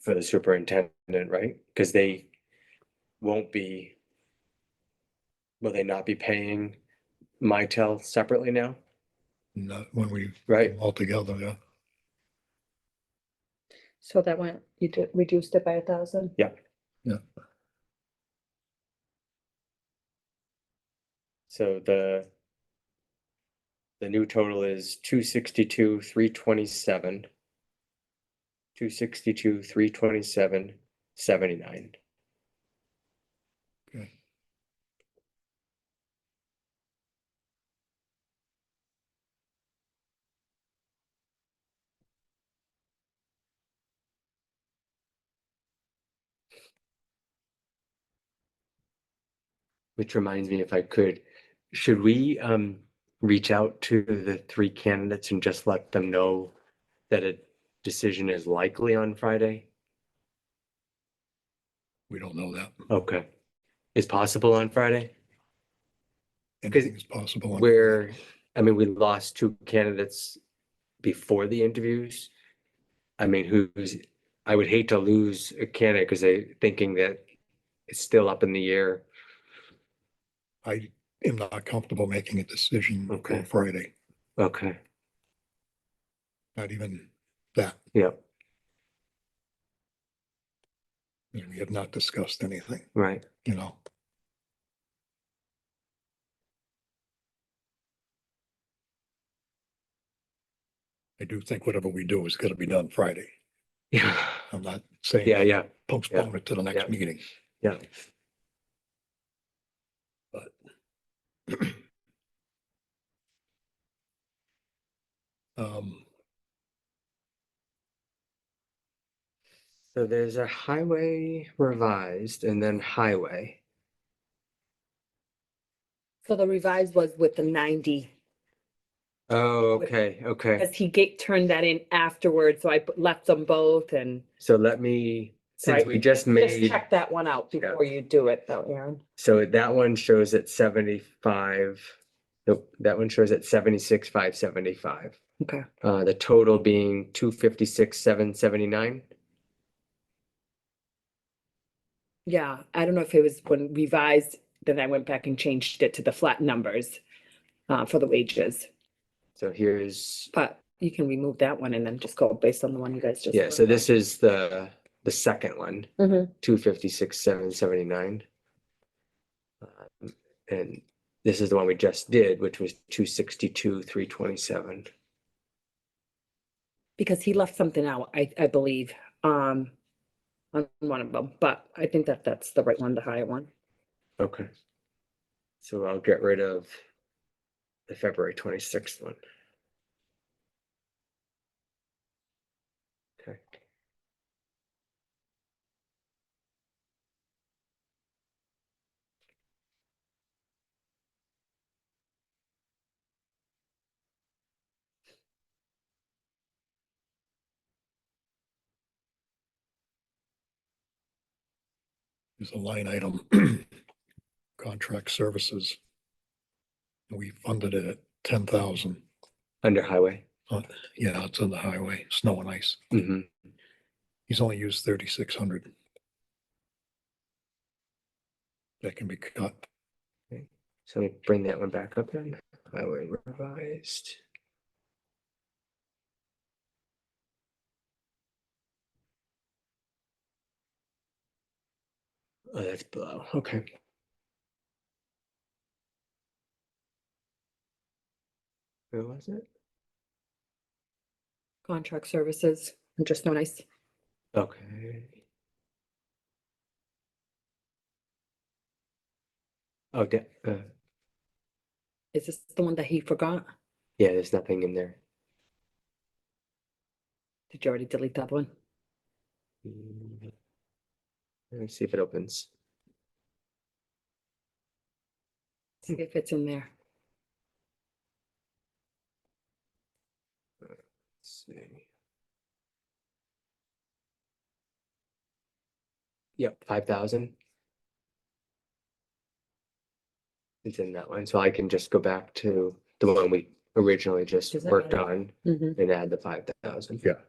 for the superintendent, right? Because they won't be, will they not be paying Mitel separately now, Not when we right? all together, yeah. So that went, you did, reduced it by a thousand? Yeah. Yeah. So the the new total is two sixty-two, three twenty-seven. Two sixty-two, three twenty-seven, seventy-nine. Okay. Which reminds me, if I could, should we um reach out to the three candidates and just let them know that a decision is likely on Friday? We don't know that. Okay. Is possible on Friday? Anything is possible. on- Where, I mean, we lost two candidates before the interviews. I mean, who's, I would hate to lose a candidate because they thinking that it's still up in the air. I am not comfortable making a decision Okay. on Friday, Okay, not even that. yeah, We have not discussed anything, right. you know. I do think whatever we do is gonna be done Friday. Yeah, I'm not saying yeah, yeah. postpone it to the yeah. next meeting. Yeah. But. Um, So there's a highway revised and then highway. So the revised was with the ninety, Oh, Wait. okay, okay. because he get, turned that in afterwards, so I put- left them both and So let me, since Right. we just just made. check that one out Yeah. before you do it though, Aaron. So that one shows at seventy-five, nope, that one shows at seventy-six, five seventy-five. Okay. Uh, the total being two fifty-six, seven seventy-nine. Yeah, I don't know if it was when revised, then I went back and changed it to the flat numbers uh, for the wages, So here's, but you can remove that one and then just go based on the one you guys just. yeah, so this is the, the second one, Mhm. two fifty-six, seven seventy-nine. Um, And this is the one we just did, which was two sixty-two, three twenty-seven. Because he left something out, I, I believe, um, on one of them, but I think that that's the right one, the higher one. Okay. So I'll get rid of the February twenty-sixth one. Okay. is a line item, contract services. We funded it at ten thousand. Under highway. Yeah, it's on the highway, snow and ice. hmm He's only used thirty-six hundred. That can be cut. So let me bring that one back up then. Highway revised. Oh, that's below. Okay. Where was it? Contract services, and just no nice. Okay. Oh, da- uh, Is this the one that he forgot? yeah, there's nothing in there. Did you already delete that one? Mm. Let me see if it opens. See if it's in there. Let's see. Yep, five thousand. It's in that one, so I can just go back to the one we originally just Does that worked matter? on Mm-hmm. and add the five thousand. Yeah.